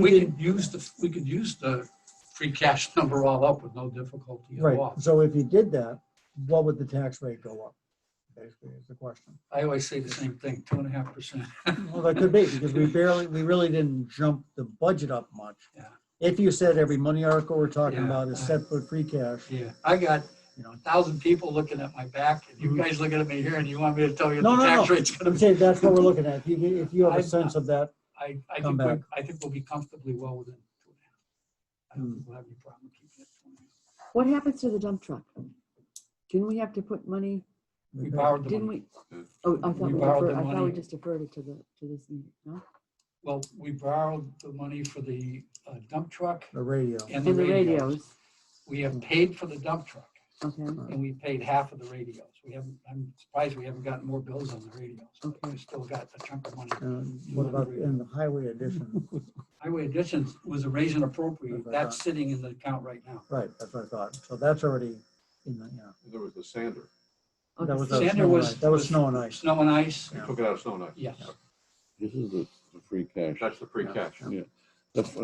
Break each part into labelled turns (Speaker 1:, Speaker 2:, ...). Speaker 1: We
Speaker 2: did,
Speaker 1: could use the, we could use the free cash number all up with no difficulty at
Speaker 2: right,
Speaker 1: all.
Speaker 2: so if you did that, what would the tax rate go up? Basically, is the question.
Speaker 1: I always say the same thing, two and a half percent.
Speaker 2: Well, that could be, because we barely, we really didn't jump the budget up much.
Speaker 1: Yeah.
Speaker 2: If you said every money article we're talking
Speaker 1: Yeah.
Speaker 2: about is set for free cash,
Speaker 1: Yeah, I got, you know, a thousand people looking at my back and you
Speaker 2: Mhm.
Speaker 1: guys looking at me here and you want me to tell you
Speaker 2: No,
Speaker 1: the
Speaker 2: no,
Speaker 1: tax
Speaker 2: no.
Speaker 1: rate's gonna
Speaker 2: I'm
Speaker 1: be.
Speaker 2: saying that's what we're looking at. If you, get- if you have a
Speaker 1: I'm-
Speaker 2: sense of that,
Speaker 1: I, I
Speaker 2: Come
Speaker 1: think, we're-
Speaker 2: back.
Speaker 1: I think we'll be comfortably well within two and a half. I don't
Speaker 2: Hmm.
Speaker 1: think we'll have any problem keeping it. two and a half.
Speaker 3: What happens to the dump truck? Didn't we have to put money,
Speaker 1: We borrowed the
Speaker 3: didn't
Speaker 1: money.
Speaker 3: we? Oh, I
Speaker 1: We
Speaker 3: thought we
Speaker 1: borrowed the
Speaker 3: deferred, I thought we
Speaker 1: money.
Speaker 3: just deferred it to the, to this meeting, no?
Speaker 1: Well, we borrowed the money for the uh, dump truck
Speaker 2: the radio.
Speaker 1: and the
Speaker 3: And the
Speaker 1: radios.
Speaker 3: radios,
Speaker 1: We
Speaker 2: Hmm.
Speaker 1: have paid for the dump truck
Speaker 3: okay,
Speaker 1: and we paid half of the radios. We haven't, I'm surprised we haven't gotten more bills on the radios. but We
Speaker 3: Okay.
Speaker 1: still got a chunk of money.
Speaker 2: And what about in the highway addition?
Speaker 1: Highway additions was a raise and appropriate.
Speaker 2: Remember
Speaker 1: That's
Speaker 2: that.
Speaker 1: sitting in the account right now.
Speaker 2: Right, that's what I thought. So that's already in the, yeah.
Speaker 4: There was the sander.
Speaker 3: Oh,
Speaker 2: That
Speaker 3: the
Speaker 2: was,
Speaker 3: sand-
Speaker 2: a
Speaker 1: Sander
Speaker 2: snow and
Speaker 1: was-
Speaker 2: ice. that was
Speaker 1: was-
Speaker 2: snow and ice.
Speaker 1: Snow and ice,
Speaker 4: They took it out of snow and ice.
Speaker 1: yes.
Speaker 5: This is the, the free cash.
Speaker 4: That's the free cash.
Speaker 5: The-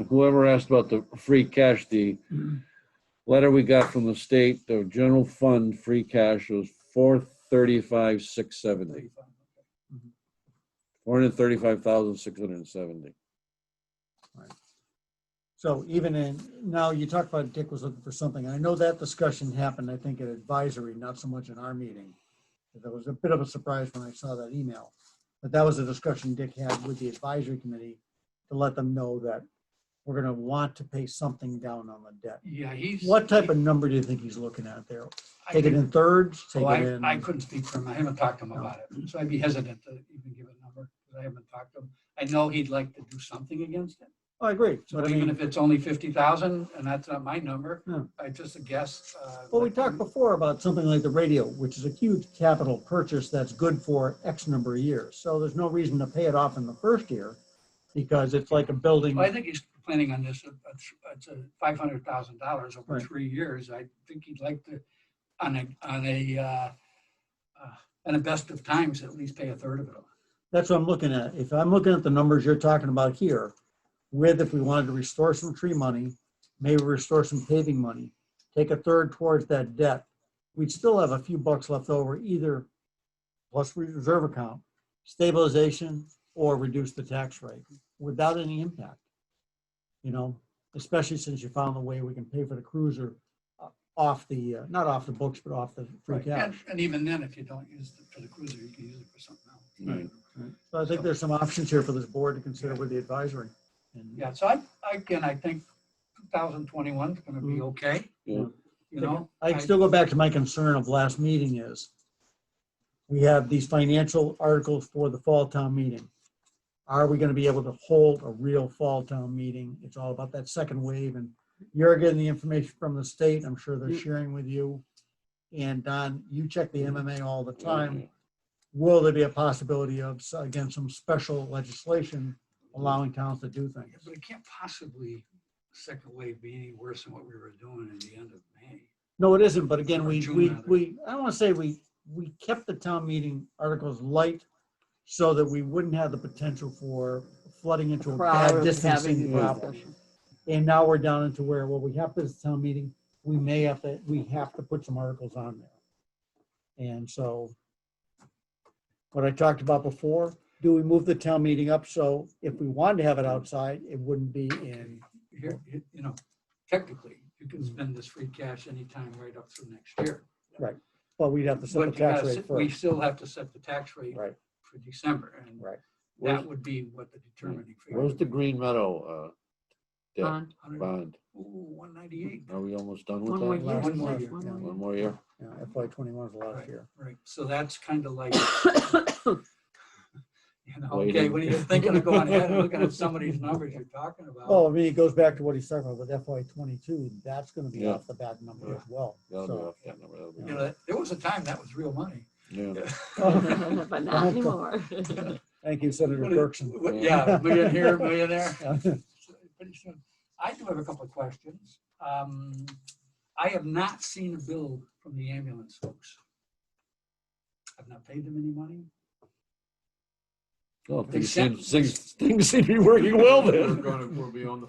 Speaker 5: Whoever asked about the free cash, the letter we got from the state, the general fund free cash was four thirty-five, six seventy, four hundred thirty-five thousand, six hundred and seventy.
Speaker 2: So even in, now you talked about Dick was looking for something. I know that discussion happened, I think, at advisory, not so much in our meeting. That was a bit of a surprise when I saw that email. But that was a discussion Dick had with the advisory committee to let them know that we're gonna want to pay something down on the debt.
Speaker 1: Yeah, he's.
Speaker 2: What type of number do you think he's looking at there?
Speaker 1: I
Speaker 2: Take it
Speaker 1: think-
Speaker 2: in thirds, take
Speaker 1: Well,
Speaker 2: it
Speaker 1: I, I
Speaker 2: in, Oh.
Speaker 1: couldn't speak for him. I haven't talked to him
Speaker 2: No.
Speaker 1: about it. So I'd be hesitant to even give a number because I haven't talked to him. I know he'd like to do something against it.
Speaker 2: Oh, I agree.
Speaker 1: So
Speaker 2: But I
Speaker 1: even
Speaker 2: mean,
Speaker 1: if it's only fifty thousand, and that's not my number,
Speaker 2: Yeah.
Speaker 1: I just a guess. uh,
Speaker 2: well, we
Speaker 1: that-
Speaker 2: talked before about something like the radio, which is a huge capital purchase that's good for X number of years. So there's no reason to pay it off in the first year because it's like a building.
Speaker 1: Well, I think he's planning on this, uh, uh, th- it's a five hundred thousand dollars over
Speaker 2: Right.
Speaker 1: three years. I think he'd like to, on a, on a, uh, uh, and a best of times, at least pay a third of it. off.
Speaker 2: That's what I'm looking at. If I'm looking at the numbers you're talking about here, with if we wanted to restore some tree money, maybe restore some paving money, take a third towards that debt, we'd still have a few bucks left over either plus reserve account, stabilization, or reduce the tax rate without any impact. You know, especially since you found a way we can pay for the cruiser uh, off the, uh, not off the books, but off the free
Speaker 1: Right. And
Speaker 2: cash.
Speaker 1: and even then, if you don't use it for the cruiser, you can use it for something else.
Speaker 5: Right.
Speaker 2: So I think there's some options here for this board to consider with the advisory. And-
Speaker 1: Yeah, so I, I- again, I think two thousand twenty-one is gonna be
Speaker 2: Mhm.
Speaker 1: okay,
Speaker 5: Yeah.
Speaker 1: you know?
Speaker 2: I still go back to my concern of last meeting is, we have these financial articles for the fall town meeting. Are we gonna be able to hold a real fall town meeting? It's all about that second wave, and you're getting the information from the state, I'm sure they're
Speaker 3: Mm.
Speaker 2: sharing with you. And Don, you check the MMA all the time. Will there be a possibility of, s- again, some special legislation allowing towns to do
Speaker 1: Yeah,
Speaker 2: things?
Speaker 1: But it can't possibly, second wave be any worse than what we were doing in the end of May.
Speaker 2: No, it isn't, but again,
Speaker 1: Or
Speaker 2: we,
Speaker 1: June,
Speaker 2: we,
Speaker 1: rather.
Speaker 2: we, I don't want to say we, we kept the town meeting articles light so that we wouldn't have the potential for flooding into a bad
Speaker 3: crowd was having
Speaker 2: distancing
Speaker 3: a
Speaker 2: problem.
Speaker 3: discussion.
Speaker 2: And now we're down into where, well, we have this town meeting, we may have to, we have to put some articles on there. And so what I talked about before, do we move the town meeting up so if we wanted to have it outside, it wouldn't be in,
Speaker 1: Here, you you know, technically, you can
Speaker 2: Hmm.
Speaker 1: spend this free cash anytime right up through next year.
Speaker 2: but we'd have to set
Speaker 1: But
Speaker 2: the
Speaker 1: you
Speaker 2: tax
Speaker 1: gotta
Speaker 2: rate
Speaker 1: set- we
Speaker 2: first.
Speaker 1: still have to set the tax rate
Speaker 2: Right,
Speaker 1: for December, and
Speaker 2: right. Hmm.
Speaker 1: that would be what the determining. figure
Speaker 5: Where's the
Speaker 1: would be.
Speaker 5: Green Meadow, uh, debt
Speaker 3: Bond.
Speaker 1: 100
Speaker 5: bond?
Speaker 1: Ooh, 198,
Speaker 2: Hmm.
Speaker 5: Are we almost done
Speaker 3: One more
Speaker 5: with that?
Speaker 3: year.
Speaker 1: One more
Speaker 3: left,
Speaker 1: year,
Speaker 3: one
Speaker 2: yeah.
Speaker 3: more
Speaker 5: One more year?
Speaker 2: Yeah, FY twenty-one is the last year.
Speaker 1: right, so that's kind of like, you know,
Speaker 5: Waiting.
Speaker 1: okay, when you're thinking of going ahead and looking at some of these numbers you're talking
Speaker 2: Well,
Speaker 1: about.
Speaker 2: I mean, it goes back to what he's talking about with FY twenty-two, that's gonna be
Speaker 5: Yeah.
Speaker 2: off the back number as well.
Speaker 5: That'll be
Speaker 2: So,
Speaker 5: off that number, that'll be-
Speaker 1: You know, there was a time that was real money.
Speaker 5: Yeah.
Speaker 2: Oh,
Speaker 3: But not anymore.
Speaker 2: Thank you, Senator
Speaker 1: What is-
Speaker 2: Dirksen.
Speaker 1: what- Yeah, million here, million there.
Speaker 2: Yeah.
Speaker 1: So, pretty soon. I do have a couple of questions. Um, I have not seen a bill from the ambulance folks. I've not paid them any money.
Speaker 5: Well,
Speaker 1: They
Speaker 5: things
Speaker 1: sent-
Speaker 5: seem, things, things seem to be working well
Speaker 4: We're
Speaker 5: then.
Speaker 4: gonna, we'll be on the